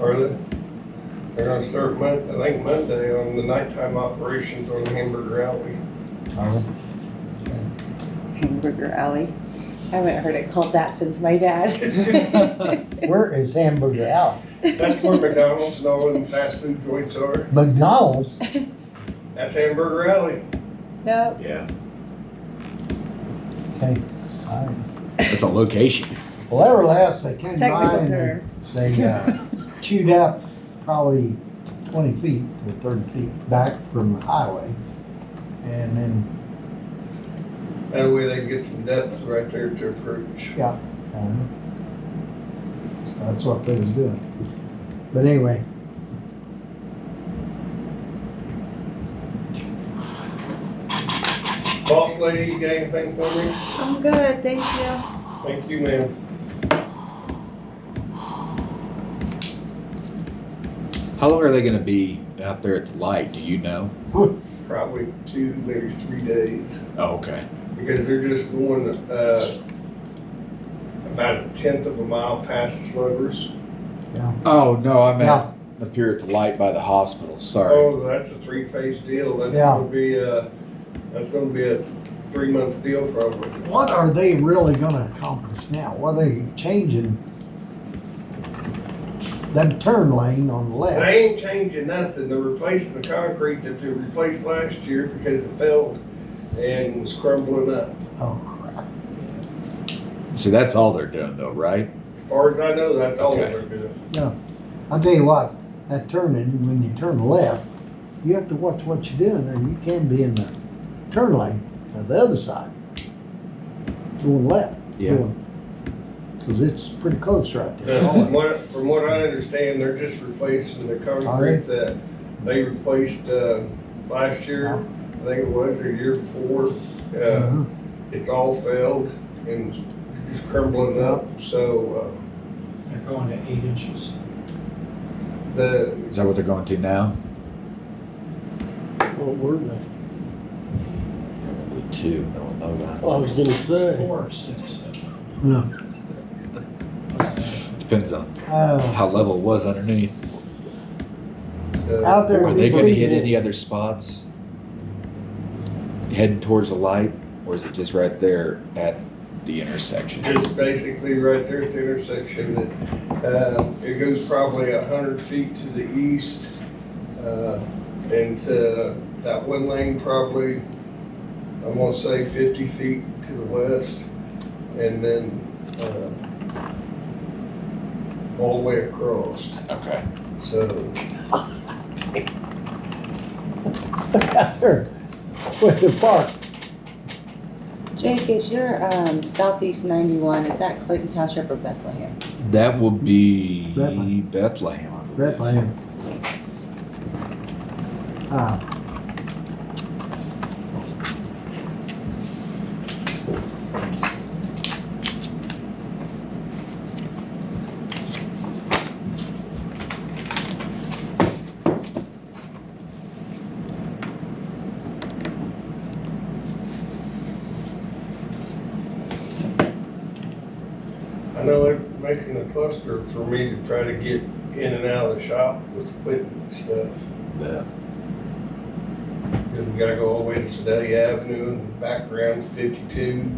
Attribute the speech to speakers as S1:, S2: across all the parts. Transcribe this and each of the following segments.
S1: Are they, they're gonna start Mon, I think Monday on the nighttime operations on Hamburger Alley.
S2: Uh,
S3: Hamburger Alley. I haven't heard it called that since my dad.
S2: Where is Hamburger Alley?
S1: That's where McDonald's and all them fast food joints are.
S2: McDonald's?
S1: That's Hamburger Alley.
S3: No,
S4: Yeah,
S2: Okay. all right.
S4: that's a location.
S2: Well, they were last, they came by
S3: technical
S2: and they-
S3: term.
S2: they uh, chewed up probably twenty feet or thirty feet back from the highway. And then,
S1: That way they can get some depth right there to approach.
S2: uh, so that's what they was doing. But anyway,
S1: Boss lady, you got anything for me?
S3: I'm good, thank you.
S1: Thank you, ma'am.
S4: How long are they gonna be out there at the light? Do you know?
S1: Probably two, maybe three days.
S4: Oh, okay.
S1: because they're just going uh, about a tenth of a mile past Sluggers.
S4: Oh no, I meant
S2: Yeah.
S4: up here at the light by the hospital. Sorry.
S1: Oh, that's a three-phase deal. That's
S2: Yeah.
S1: gonna be a that's gonna be a three-month deal probably.
S2: what are they really gonna accomplish now? Well, they changing that turn lane on the left.
S1: They ain't changing nothing. They're replacing the concrete that they replaced last year because it failed and was crumbling up.
S2: Oh, crap.
S4: See, that's all they're doing though, right?
S1: As far as I know, that's all
S4: Okay.
S1: they're doing.
S2: I'll tell you what, that turn in, when you turn left, you have to watch what you're doing, or you can be in the turn lane on the other side. Going left.
S4: Yeah.
S2: Because it's pretty close right there.
S1: Now, from, what, from what I understand, they're just replacing the concrete that they replaced uh, last year. I think it was or year before. Uh,
S2: Uh-huh.
S1: it's all failed and just crumbling up. So
S5: They're going to eight inches.
S1: uh, the
S4: Is that what they're going to now?
S6: What were they?
S4: Probably two. No one know that.
S6: Oh, I was gonna say.
S5: Four or six, seven.
S2: Yeah.
S4: Depends on
S2: Uh,
S4: how level it was underneath.
S1: so
S2: Out there.
S4: Are they going to hit
S2: Yeah.
S4: any other spots heading towards the light, or is it just right there at the intersection?
S1: just basically right there at the intersection that uh, it goes probably a hundred feet to the east uh, and to that one lane probably I'm gonna say fifty feet to the west and then uh, all the way across.
S4: Okay.
S1: So
S2: out there with the park.
S3: Jake, is your um, southeast 91, is that Clinton Township or Bethlehem?
S4: That will be
S2: Bethlehem.
S4: Bethlehem. I believe.
S2: That lane.
S3: Thanks.
S2: Ah,
S1: I know they're making a cluster for me to try to get in and out of the shop with equipment and stuff.
S4: Yeah.
S1: Because we gotta go all the way to Sedalia Avenue and back around to fifty-two.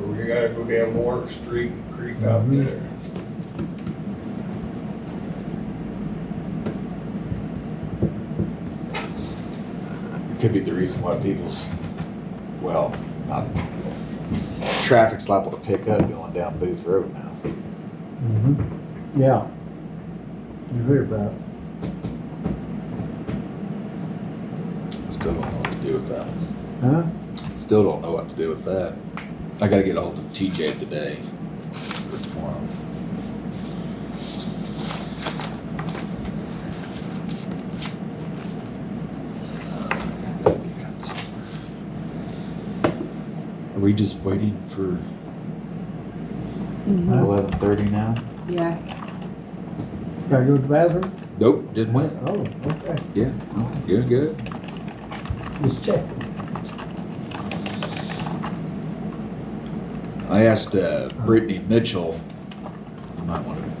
S1: Or we gotta go down Warwick Street, and creep out
S2: Mhm.
S1: there.
S4: It could be the reason why people's, well, not, traffic's liable to pick up going down Booth Road now.
S2: mhm. yeah. You hear about it.
S4: Still don't know what to do with that.
S2: Huh?
S4: Still don't know what to do with that. I gotta get a hold of TJ today or tomorrow. Are we just waiting for
S3: Mhm.
S2: Mm-hmm.
S4: eleven thirty now?
S3: Yeah.
S2: Gotta go to the bathroom?
S4: Nope, just went.
S2: Oh, okay.
S4: Yeah, no, good, good.
S2: Just check.
S4: I asked uh, Brittany Mitchell, you might want to